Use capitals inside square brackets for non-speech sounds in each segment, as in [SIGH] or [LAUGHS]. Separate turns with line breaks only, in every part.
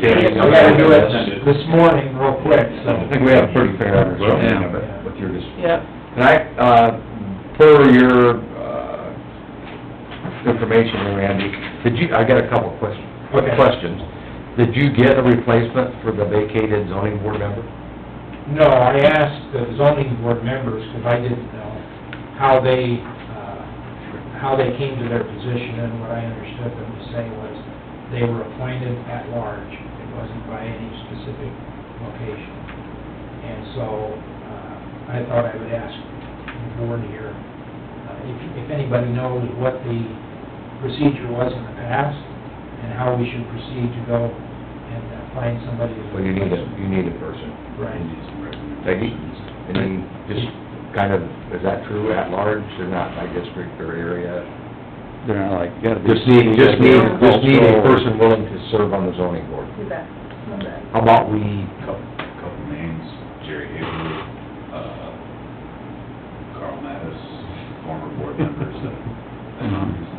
standing.
We gotta do it this morning real quick, so.
I think we have a pretty fair understanding of
Yeah.
it, what you're just,
Yep,
and I, uh, for your, uh, information, there, Randy, did you, I got a couple of questions, quick
Okay.
questions. Did you get a replacement for the vacated zoning board member?
No, I asked the zoning board members, because I didn't know, how they, uh, how they came to their position, and what I understood them to say was, they were appointed at large, it wasn't by any specific location. And so, uh, I thought I would ask the board here, uh, if, if anybody knows what the procedure was in the past, and how we should proceed to go and uh, find somebody. as a
Well, you need a,
replacement.
you need a person.
Right.
Peggy? And then just kind of, is that true at large, or not by district or area?
They're not like, gotta be.
Just need, just need, just need a
Cultural.
person willing to serve on the zoning board.
you bet, you bet.
How about we
Couple, couple names, Jerry Haber, uh, Carl Mattis, former board members that, that know these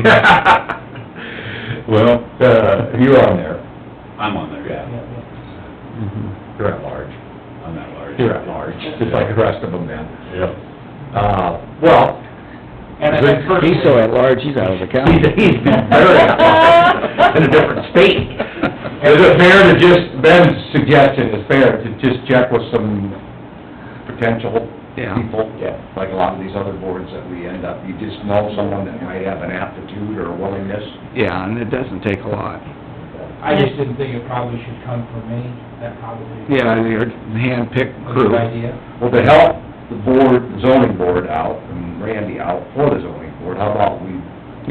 Thank you, [LAUGHS] Larry.
Well,
Uh, you're on there,
I'm on there, yeah,
Yeah, yeah.
Mhm.
you're at large,
I'm at large.
you're at large, just like the rest of them then.
Yep.
Uh, well,
And then at first-
He's so at large, he's out of the county.
he's, he's been
[LAUGHS]
[LAUGHS]
very in a different state. Is it fair to just, Ben's suggestion is fair, to just check with some potential
Yeah.
people? Like a lot of these other boards that we end up, you just know someone that might have an aptitude or willingness.
Yeah, and it doesn't take a lot.
I just didn't think it probably should come from me, that probably
Yeah, your hand-picked
was a good
crew.
idea.
Well, to help the board, the zoning board out, and Randy out for the zoning board, how about we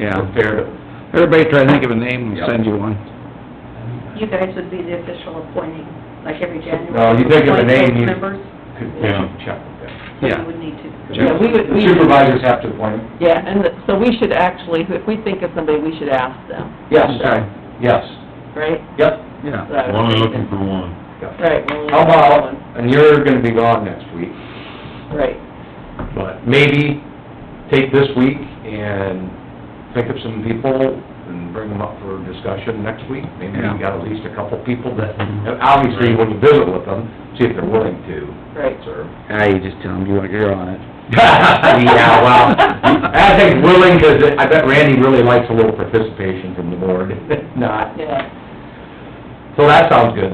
Yeah.
prepare to...
Everybody try to think of a name, we'll send you one.
uh,
You guys would be the official appointing, like every January.
Well, you think of a name,
appoint
you-
those Members,
could-
Yeah.
Check with them.
so
Yeah.
you would need to.
Yeah, we would-
The Supervisors have to appoint them?
Yeah, and the- so we should actually, if we think of somebody, we should ask them,
Yes.
Okay.
Yes.
right?
Yep.
Yeah.
We're only looking for one.
Yep.
Right, we're only
How
looking for
about,
one,
and you're gonna be gone next week,
right.
but maybe take this week and think of some people and bring them up for discussion next week. Maybe
Yeah.
we got at least a couple people that, and obviously, when you visit with them, see if they're willing to
Right.
serve. [LAUGHS]
Ah, you just tell them you want, you're on it.
Yeah, well, I think willing, 'cause I bet Randy really likes a little participation from the board, not,
Yeah.
so that sounds good.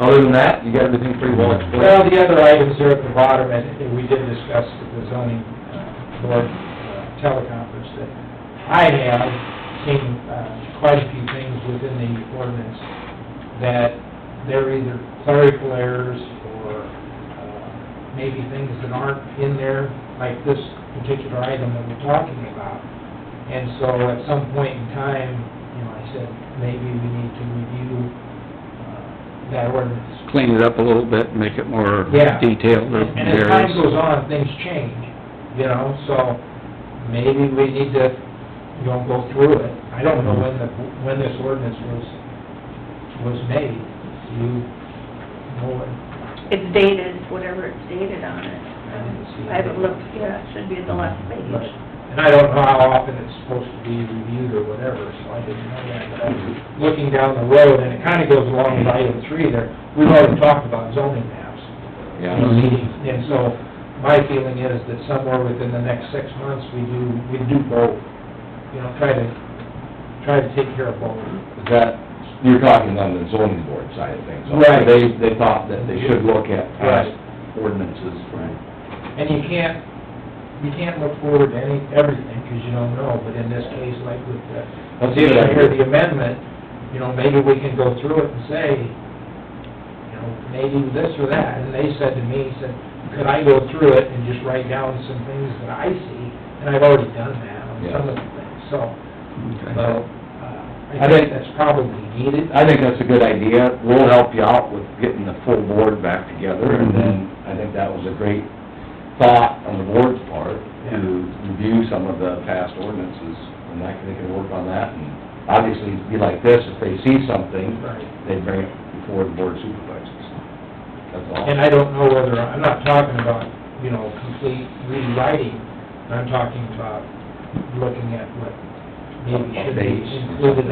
Other than that, you got everything pretty well explained?
Well, the other items there at the bottom, and and we did discuss at the zoning uh, board uh, teleconference, that I have seen uh, quite a few things within the ordinance that they're either clerical errors or uh, maybe things that aren't in there, like this particular item that we're talking about. And so at some point in time, you know, I said, maybe we need to review uh, that ordinance
Clean it up a little bit, make it more
Yeah.
detailed or
and as time
various.
goes on, things change, you know, so maybe we need to, you know, go through it. I don't know when the, when this ordinance was, was made, you know it.
It's dated, whatever it's dated
I
on
didn't see it.
it. I haven't looked, yeah, it should be at the last page.
And I don't know how often it's supposed to be reviewed or whatever, so I didn't know that, but I was looking down the road, and it kinda goes along with item three there. We've already talked about zoning maps.
Yeah,
proceedings. And so, my feeling is that somewhere within the next six months, we do, we do both, you know, try to, try to take care of both.
Is that, you're talking on the zoning board side of things.
Right.
They, they thought that they should look at past ordinances.
And you can't, you can't look forward to any, everything, because you don't know, but in this case, like with the,
Let's see what I
here, the
hear.
amendment, you know, maybe we can go through it and say, you know, maybe this or that, and they said to me, said, could I go through it and just write down some things that I see? And I've already done that on some of the things, so,
Okay.
Well, uh,
I
I
think-
think that's probably needed.
I think that's a good idea. We'll help you out with getting the full board back together, and
Mm-hmm.
then I think that was a great thought on the board's part to review some of the past ordinances, and I think they can work on that, and obviously, it'd be like this, if they see something,
Right.
they'd bring it before the board of supervisors. That's all.
And I don't know whether, I'm not talking about, you know, complete rewriting, I'm talking about looking at what maybe should be
Updates.
included